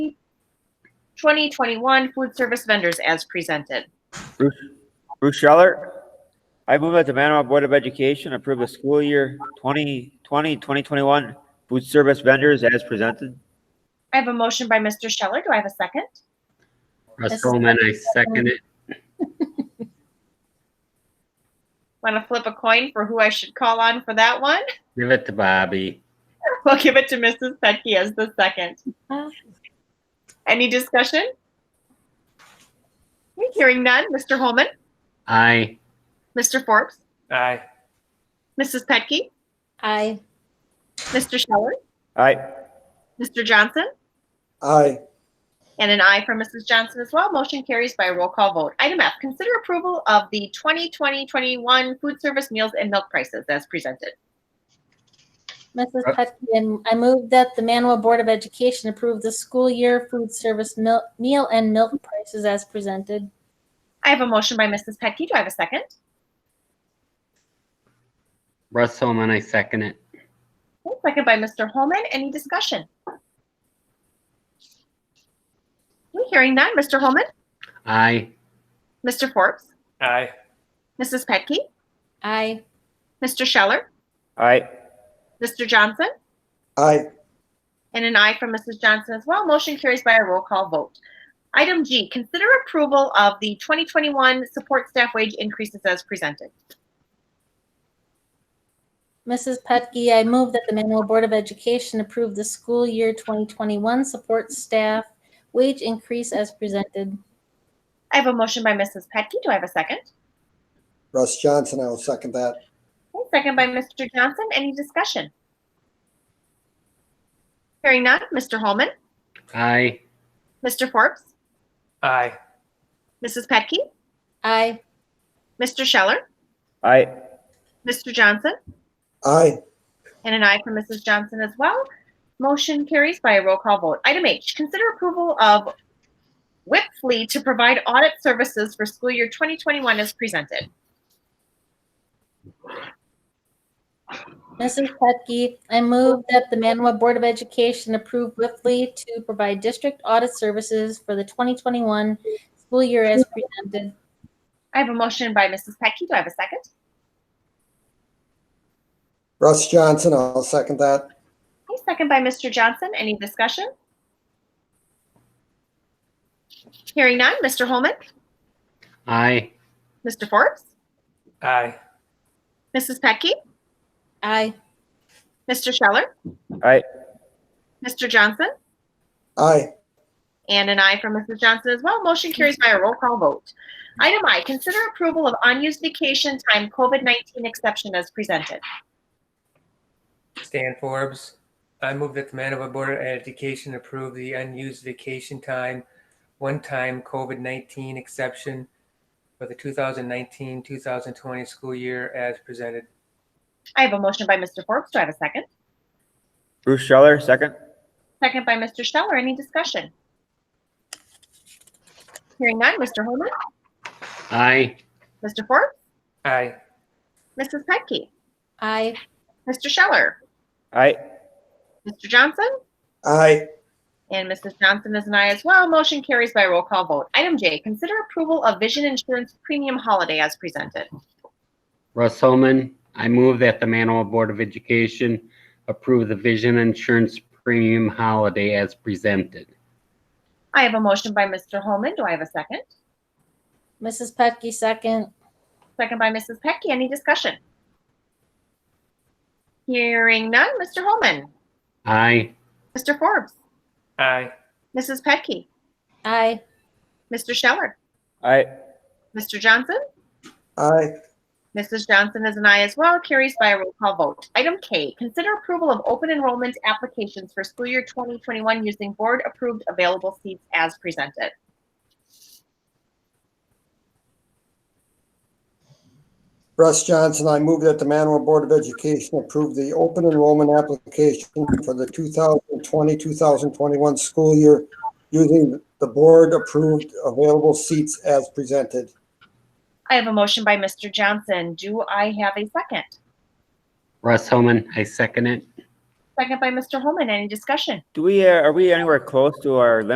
2021 food service vendors as presented. Bruce Scheller. I move that the Manawha Board of Education approve the school year 2020, 2021 food service vendors as presented. I have a motion by Mr. Scheller. Do I have a second? Russ Yes. Holman, I second it. Want to flip a coin for who I should call on for that one? Give it to Bobby. We'll give it to Mrs. Petke as the second. Any discussion? Hearing none. Mr. Holman, Aye. Mr. Forbes, Aye. Mrs. Petke, Aye. Mr. Scheller, Aye. Mr. Johnson, aye, and an aye from Mrs. Johnson as well. Motion carries by a roll call vote. Item F, consider approval of the 2020-21 food service meals and milk prices as presented. Mrs. Uh, Petkin, I move that the Manawha Board of Education approve the school year food service mil- meal and milk prices as presented. I have a motion by Mrs. Petke. Do I have a second? Russ Holman, I second it. Okay, Second by Mr. Holman. Any discussion? Okay, Hearing none. Mr. Holman, Aye. Mr. Forbes, Aye. Mrs. Petke, Aye. Mr. Scheller, Aye. Mr. Johnson, aye, and an aye from Mrs. Johnson as well. Motion carries by a roll call vote. Item G, consider approval of the 2021 support staff wage increases as presented. Mrs. Petke, I move that the Manawha Board of Education approve the school year 2021 support staff wage increase as presented. I have a motion by Mrs. Petke. Do I have a second? Russ Johnson, I will second that, Okay, Second by Mr. Johnson. Any discussion? Hearing none. Mr. Holman, Aye. Mr. Forbes, Aye. Mrs. Petke, Aye. Mr. Scheller, Aye. Mr. Johnson, aye, and an aye from Mrs. Johnson as well. Motion carries by a roll call vote. Item H, consider approval of WIP Fleet to provide audit services for school year 2021 as presented. Mrs. Petke, I move that the Manawha Board of Education approve Whiffley to provide district audit services for the 2021 school year as presented. I have a motion by Mrs. Pecky. Do I have a second? Russ Johnson, I'll second that, Okay, second by Mr. Johnson. Any discussion? Hearing none. Mr. Holman, Aye. Mr. Forbes, Aye. Mrs. Pecky, Aye. Mr. Scheller. Aye. Mr. Johnson. aye, And an aye from Mrs. Johnson as well. Motion carries by a roll call vote. Item I, consider approval of unused vacation time COVID-19 exception as presented. Stan Forbes. I move that the Manawha Board of Education approve the unused vacation time, one-time COVID-19 exception for the 2019-2020 school year as presented. I have a motion by Mr. Forbes. Do I have a second? Bruce Scheller, second. Second by Mr. Scheller. Any discussion? Hearing none. Mr. Holman, Aye. Mr. Forbes, Aye. Mrs. Petke, Aye. Mr. Scheller, Aye. Mr. Johnson, aye, and Mrs. Johnson is an aye as well. Motion carries by roll call vote. Item J, consider approval of vision insurance premium holiday as presented. Russ Holman, I move that the Manawha Board of Education approve the vision insurance premium holiday as presented. I have a motion by Mr. Holman. Do I have a second? Mrs. Petke, second. Second by Mrs. Pecky. Any discussion? Hearing none. Mr. Holman, Aye. Mr. Forbes, Aye. Mrs. Pecky, Aye. Mr. Scheller, Aye. Mr. Johnson, aye, Mrs. Johnson is an aye as well. Carries by a roll call vote. Item K, consider approval of open enrollment applications for school year 2021 using board-approved available seats as presented. Russ Johnson, I move that the Manawha Board of Education approve the open enrollment application for the 2020, 2021 school year using the board-approved available seats as presented. I have a motion by Mr. Johnson. Do I have a second? Russ Holman, I second it. Second by Mr. Holman. Any discussion? Do we, uh, are we anywhere close to our limit